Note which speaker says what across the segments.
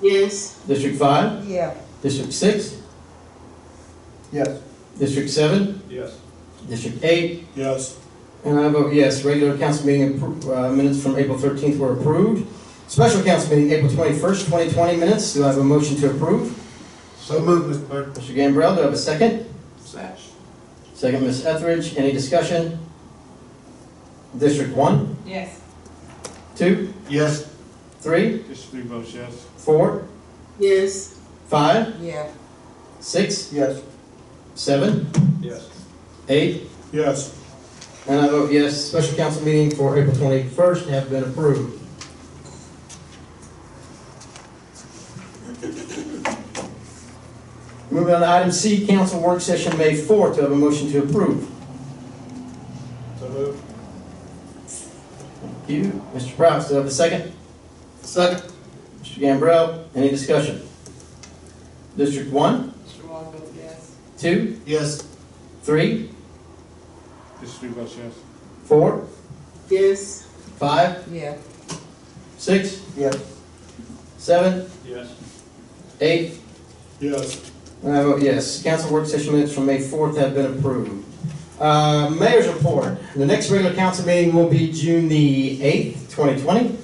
Speaker 1: Yes.
Speaker 2: District five?
Speaker 3: Yeah,
Speaker 2: District six?
Speaker 4: Yes.
Speaker 2: District seven?
Speaker 4: Yes.
Speaker 2: District eight?
Speaker 4: Yes.
Speaker 2: And I vote yes. Regular council meeting appro- uh, minutes from April thirteenth were approved. Special council meeting, April twenty-first, twenty twenty minutes. Do I have a motion to approve?
Speaker 4: So moved, Mr. Clerk.
Speaker 2: Mr. Gambrell, do I have a second?
Speaker 1: Second.
Speaker 2: Second, Ms. Etheridge. Any discussion? District one,
Speaker 5: Yes.
Speaker 2: two,
Speaker 4: Yes.
Speaker 2: three,
Speaker 4: Just three votes, yes.
Speaker 2: four,
Speaker 1: Yes.
Speaker 2: five,
Speaker 3: yeah,
Speaker 2: six,
Speaker 4: Yes.
Speaker 2: seven,
Speaker 4: Yes.
Speaker 2: eight,
Speaker 4: Yes.
Speaker 2: And I vote yes, special council meeting for April 21st have been approved. Moving on to item C, council work session May 4th, to have a motion to approve.
Speaker 4: So moved.
Speaker 2: Thank you. Mr. Prowse, do I have a second? Second. Mr. Gambrell, any discussion? District 1,
Speaker 5: Mr. Wong votes yes.
Speaker 2: 2,
Speaker 4: Yes.
Speaker 2: 3,
Speaker 4: Just three votes, yes.
Speaker 2: 4,
Speaker 1: Yes.
Speaker 2: 5,
Speaker 3: yeah,
Speaker 2: 6,
Speaker 4: Yes.
Speaker 2: 7,
Speaker 4: Yes.
Speaker 2: 8,
Speaker 4: Yes.
Speaker 2: And I vote yes. Council work session minutes from May 4th have been approved. Uh, Mayor's report. The next regular council meeting will be June the 8th, 2020.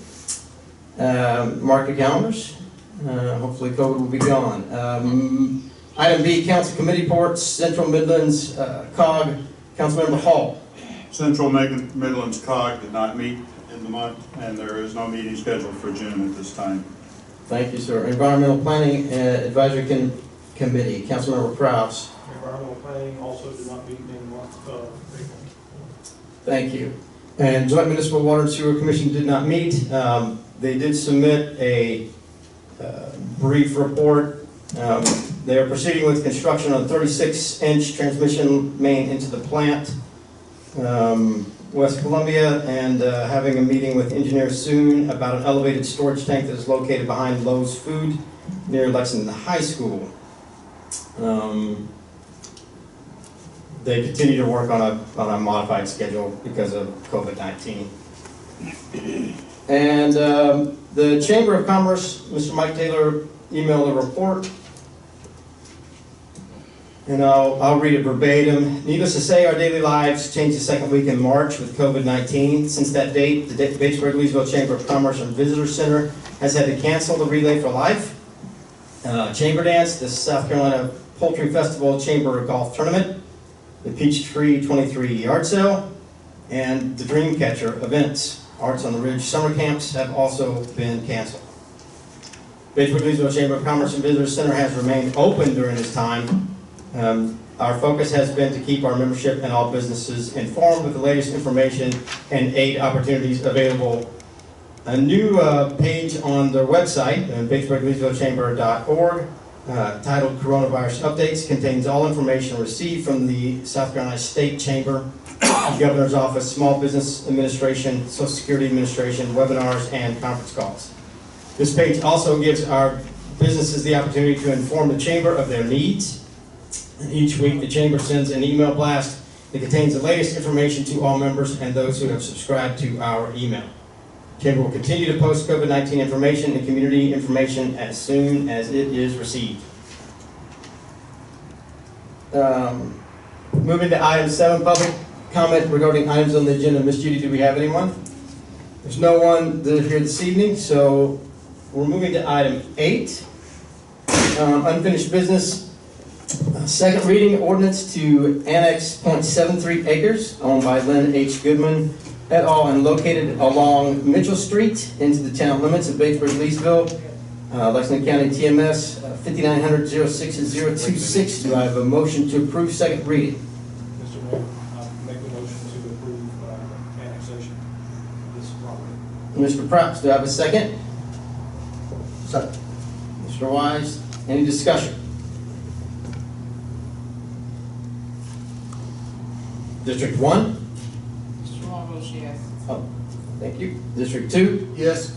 Speaker 2: Um, Mark your calendars. Uh, Hopefully COVID will be gone. Um, Item B, council committee reports, Central Midlands uh, COG, Councilmember Hall.
Speaker 6: Central Mid- Midlands COG did not meet in the month, and there is no meeting scheduled for June at this time.
Speaker 2: Thank you, sir. Environmental Planning uh, Advisory Con- Committee, Councilmember Kraus.
Speaker 7: Environmental planning also did not meet in the month of April.
Speaker 2: Thank you. And Joint Municipal Water and Sewer Commission did not meet. Um, They did submit a uh, brief report. Um, They are proceeding with construction on 36-inch transmission main into the plant, um, West Columbia, and uh, having a meeting with engineer soon about an elevated storage tank that is located behind Lowe's Food near Lexington High School. Um, they continue to work on a, on a modified schedule because of COVID-19. And um, the Chamber of Commerce, Mr. Mike Taylor emailed a report. And I'll, I'll read it verbatim. Needless to say, our daily lives changed the second week in March with COVID-19. Since that date, the Da- Batesburg-Leesville Chamber of Commerce and Visitor Center has had to cancel the Relay for Life, uh, Chamber Dance, the South Carolina Poultry Festival Chamber Golf Tournament, the Peachtree 23 Yard Sale, and the Dreamcatcher events. Arts on the Ridge summer camps have also been canceled. Batesburg Leesville Chamber of Commerce and Visitor Center has remained open during this time. Um, Our focus has been to keep our membership and all businesses informed with the latest information and aid opportunities available. A new uh, page on their website, uh, batesburgleesvillechamber.org, uh, titled Coronavirus Updates contains all information received from the South Carolina State Chamber, Governor's Office, Small Business Administration, Social Security Administration, webinars, and conference calls. This page also gives our businesses the opportunity to inform the chamber of their needs. And Each week, the chamber sends an email blast that contains the latest information to all members and those who have subscribed to our email. Chamber will continue to post COVID-19 information and community information as soon as it is received. Um, Moving to item seven, public comment regarding items on the agenda. Ms. Judy, do we have anyone? There's no one that is here this evening, so we're moving to item eight. um, Unfinished business. Uh, Second reading ordinance to annex .73 acres owned by Lynn H. Goodman et al. and located along Mitchell Street into the town limits of Batesburg, Leesville, uh, Lexington County TMS 5900-06-026. Do I have a motion to approve second reading?
Speaker 7: Mr. Mayor, I make the motion to approve uh, annexation of this property.
Speaker 2: Mr. Prowse, do I have a second?
Speaker 4: Second.
Speaker 2: Mr. Wise, any discussion? District one,
Speaker 5: Mr. Wong votes yes.
Speaker 2: thank you. District two,
Speaker 4: Yes.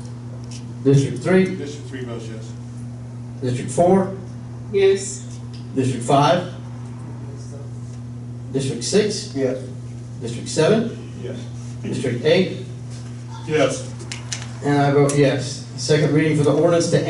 Speaker 2: District three,
Speaker 4: Just three votes, yes.
Speaker 2: District four,
Speaker 1: Yes.
Speaker 2: District five, District six,
Speaker 4: Yes.
Speaker 2: District seven,
Speaker 7: Yes.
Speaker 2: District eight,
Speaker 6: Yes.
Speaker 2: and I vote yes. Second reading for the ordinance to